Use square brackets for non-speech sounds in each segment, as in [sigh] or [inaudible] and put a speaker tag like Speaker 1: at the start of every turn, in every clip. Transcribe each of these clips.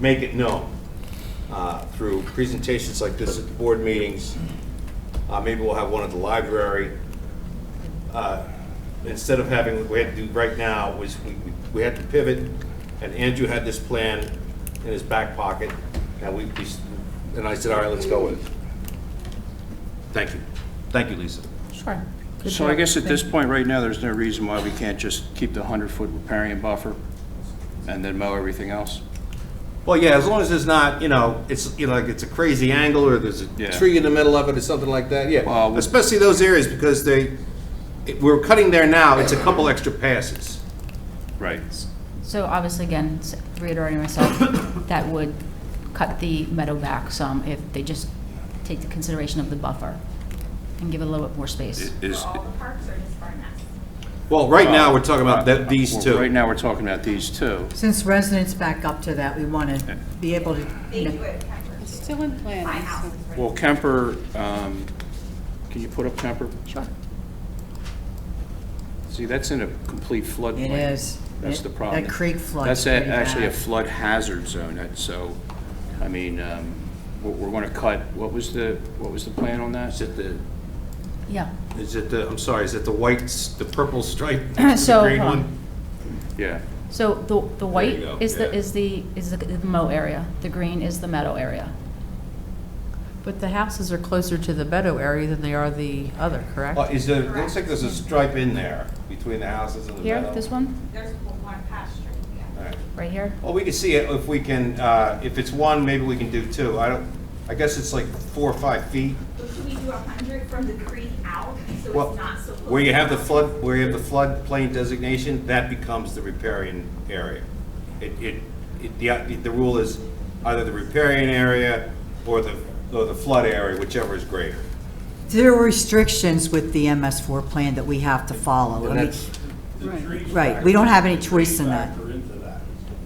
Speaker 1: make it known uh, through presentations like this at the board meetings. Uh, Maybe we'll have one at the library. Uh, Instead of having, what we had to do right now was we- we- we had to pivot, and Andrew had this plan in his back pocket, and we, we s- and I said, all right, let's go with it. Thank you. Thank you, Lisa.
Speaker 2: Sure. Good
Speaker 3: So I
Speaker 2: job.
Speaker 3: guess at this
Speaker 2: Thank-
Speaker 3: point right now, there's no reason why we can't just keep the 100-foot riparian buffer and then mow everything else?
Speaker 1: Well, yeah, as long as there's not, you know, it's, you know, like it's a crazy angle or there's a
Speaker 3: Yeah.
Speaker 1: tree in the middle of it or something like that, yeah.
Speaker 3: Well, we-
Speaker 1: Especially those areas because they, it- we're cutting there now, it's a couple extra passes.
Speaker 3: Right.
Speaker 2: So obviously, again, s- reiterating myself, [coughs] that would cut the meadow back some if they just take the consideration of the buffer and give it a little bit more space.
Speaker 3: Is,
Speaker 4: All the parks are just Barnett.
Speaker 1: Well, right now, we're talking about that, these
Speaker 3: well, Right
Speaker 1: two.
Speaker 3: now, we're talking about these two.
Speaker 5: Since residents back up to that, we want to be able to,
Speaker 4: They do it at Pembroke.
Speaker 6: It's still in planning.
Speaker 4: My house
Speaker 6: so-
Speaker 4: is right
Speaker 3: Well, Kemper, um, can you put up Kemper? Sure. See, that's in a complete floodplain.
Speaker 5: it is.
Speaker 3: That's
Speaker 5: It-
Speaker 3: the problem.
Speaker 5: That creek flood.
Speaker 3: That's a- actually a flood hazard zone, that- so, I mean, um, we're, we're gonna cut, what was the, what was the plan on that?
Speaker 1: Is it the,
Speaker 2: Yeah.
Speaker 1: is it the, I'm sorry, is it the white, s- the purple
Speaker 2: [clears throat]
Speaker 1: stripe?
Speaker 2: So,
Speaker 1: The green
Speaker 2: hold on.
Speaker 1: one?
Speaker 3: Yeah,
Speaker 2: So the, the white
Speaker 1: you go,
Speaker 2: is the,
Speaker 1: yeah.
Speaker 2: is the, is the mow area, the green is the meadow area.
Speaker 7: But the houses are closer to the meadow area than they are the other, correct?
Speaker 1: Oh, Is there, looks like there's a stripe in there between the houses and the
Speaker 2: Here,
Speaker 1: meadow.
Speaker 2: this one,
Speaker 4: There's one pasture,
Speaker 1: All
Speaker 4: yeah.
Speaker 1: right.
Speaker 2: right here.
Speaker 1: Well, we can see it if we can, uh, if it's one, maybe we can do two. I don't, I guess it's like four or five feet.
Speaker 4: But can we do a hundred from the creek out, so
Speaker 1: Well,
Speaker 4: it's not so close?
Speaker 1: where you have the flood, where you have the floodplain designation, that becomes the riparian area. It, it, it, the, the rule is either the riparian area or the, or the flood area, whichever is greater.
Speaker 5: There are restrictions with the MS4 plan that we have to follow. I mean, Right, we don't have any choice in that.
Speaker 8: Factor into that.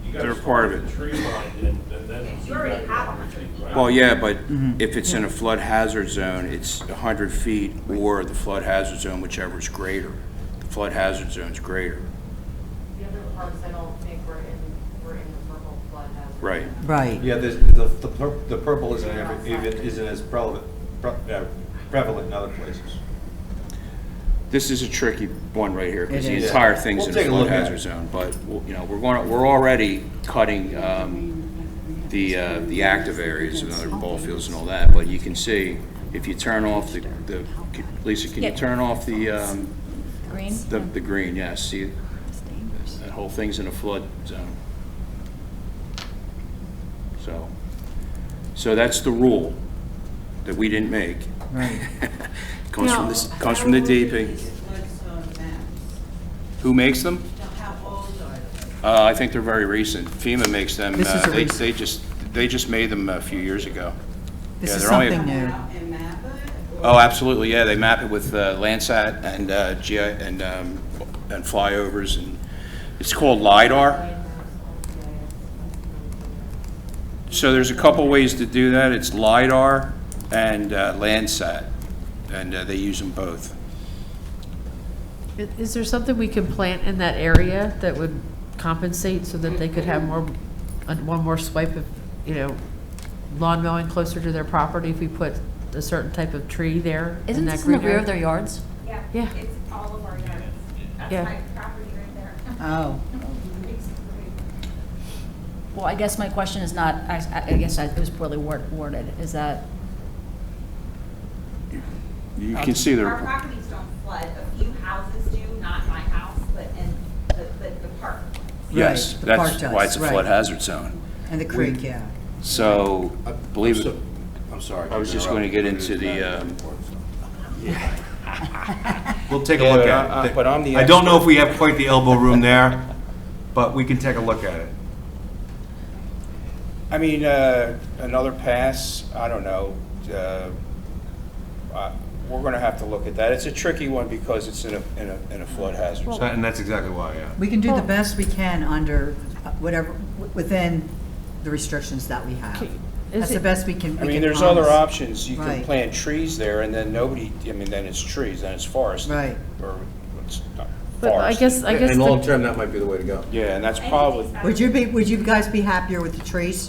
Speaker 8: You gotta
Speaker 3: They're part of
Speaker 8: start with the Tree line and and then.
Speaker 4: You already have a hundred.
Speaker 3: well, yeah, but
Speaker 5: Mm-hmm.
Speaker 3: if it's in a flood hazard zone, it's 100 feet or the flood hazard zone, whichever is greater. The flood hazard zone's greater.
Speaker 9: The other parts I don't think were in, were in the purple flood hazard.
Speaker 3: Right.
Speaker 5: Right.
Speaker 1: Yeah, there's, the, the pur- the purple isn't ever- even, isn't as prevalent, pre- uh, prevalent in other places.
Speaker 3: This is a tricky one right here, because
Speaker 5: It
Speaker 3: the
Speaker 5: is.
Speaker 3: entire thing's
Speaker 1: We'll
Speaker 3: in
Speaker 1: take
Speaker 3: a
Speaker 1: a
Speaker 3: flood
Speaker 1: look at it.
Speaker 3: hazard zone, but, well, you know, we're going, we're already cutting um, the, uh, the active areas, another ball fields and all that, but you can see, if you turn off the, the Lisa, can you
Speaker 2: Yeah.
Speaker 3: turn off the, um,
Speaker 2: Green?
Speaker 3: the, the green, yes, see, that whole thing's in a flood zone. So, so that's the rule that we didn't make. [laughs] Comes from this, comes from the DEP. Who makes them? Uh, I think they're very recent. FEMA makes them,
Speaker 5: This is
Speaker 3: uh,
Speaker 5: a
Speaker 3: they,
Speaker 5: recent-
Speaker 3: they just, they just made them a few years ago.
Speaker 5: This
Speaker 3: Yeah,
Speaker 5: is
Speaker 3: they're only-
Speaker 5: something new.
Speaker 3: Oh, absolutely, yeah, they map it with uh, Landsat and uh, GI, and, um, and flyovers, and it's called LiDAR. So there's a couple ways to do that, it's LiDAR and uh, Landsat, and uh, they use them both.
Speaker 7: I- Is there something we can plant in that area that would compensate so that they could have more, uh, one more swipe of, you know, lawn mowing closer to their property if we put a certain type of tree there?
Speaker 2: Isn't
Speaker 7: that
Speaker 2: this in the
Speaker 7: green
Speaker 2: rear
Speaker 7: area?
Speaker 2: of their yards?
Speaker 4: Yeah.
Speaker 7: Yeah.
Speaker 4: It's all of our yards. That's
Speaker 7: Yeah. Uh.
Speaker 4: my property right there.
Speaker 5: Oh.
Speaker 4: It's great.
Speaker 2: Well, I guess my question is not, I, I I guess I- it was poorly word- worded, is that,
Speaker 3: You can see
Speaker 4: Our
Speaker 3: they're,
Speaker 4: properties don't flood, a few houses do, not my house, but in, the- but the park.
Speaker 3: yes,
Speaker 5: Right, the
Speaker 3: that's
Speaker 5: park
Speaker 3: why it's
Speaker 5: does,
Speaker 3: a
Speaker 5: right.
Speaker 3: flood hazard zone.
Speaker 5: And the creek, yeah.
Speaker 3: So, believe it,
Speaker 1: I'm sorry.
Speaker 3: I was just going to get into [laughs] the, um,
Speaker 1: We'll take a
Speaker 3: Yeah,
Speaker 1: look
Speaker 3: but
Speaker 1: at
Speaker 3: I-
Speaker 1: it.
Speaker 3: I- but I'm the
Speaker 1: I don't know if we have quite the elbow room there, but we can take a look at it.
Speaker 3: I mean, uh, another pass, I don't know. uh, uh, We're going to have to look at that. It's a tricky one because it's in a, in a in a flood hazard.
Speaker 1: So- And that's exactly why, yeah.
Speaker 5: We can do the best we can under uh, whatever, w- within the restrictions that we have.
Speaker 7: Okay, is
Speaker 5: That's the
Speaker 7: it-
Speaker 5: best we can, we
Speaker 3: I
Speaker 5: can
Speaker 3: mean, there's other
Speaker 5: promise.
Speaker 3: options. You can
Speaker 5: Right.
Speaker 3: plant trees there and then nobody, I mean, then it's trees, then it's forest.
Speaker 5: Right.
Speaker 3: Or it's not
Speaker 7: But I
Speaker 3: forest.
Speaker 7: guess, I guess. the-
Speaker 1: term, that might be the way to go.
Speaker 3: Yeah, and that's probably.
Speaker 5: Would you be, would you guys be happier with the trees?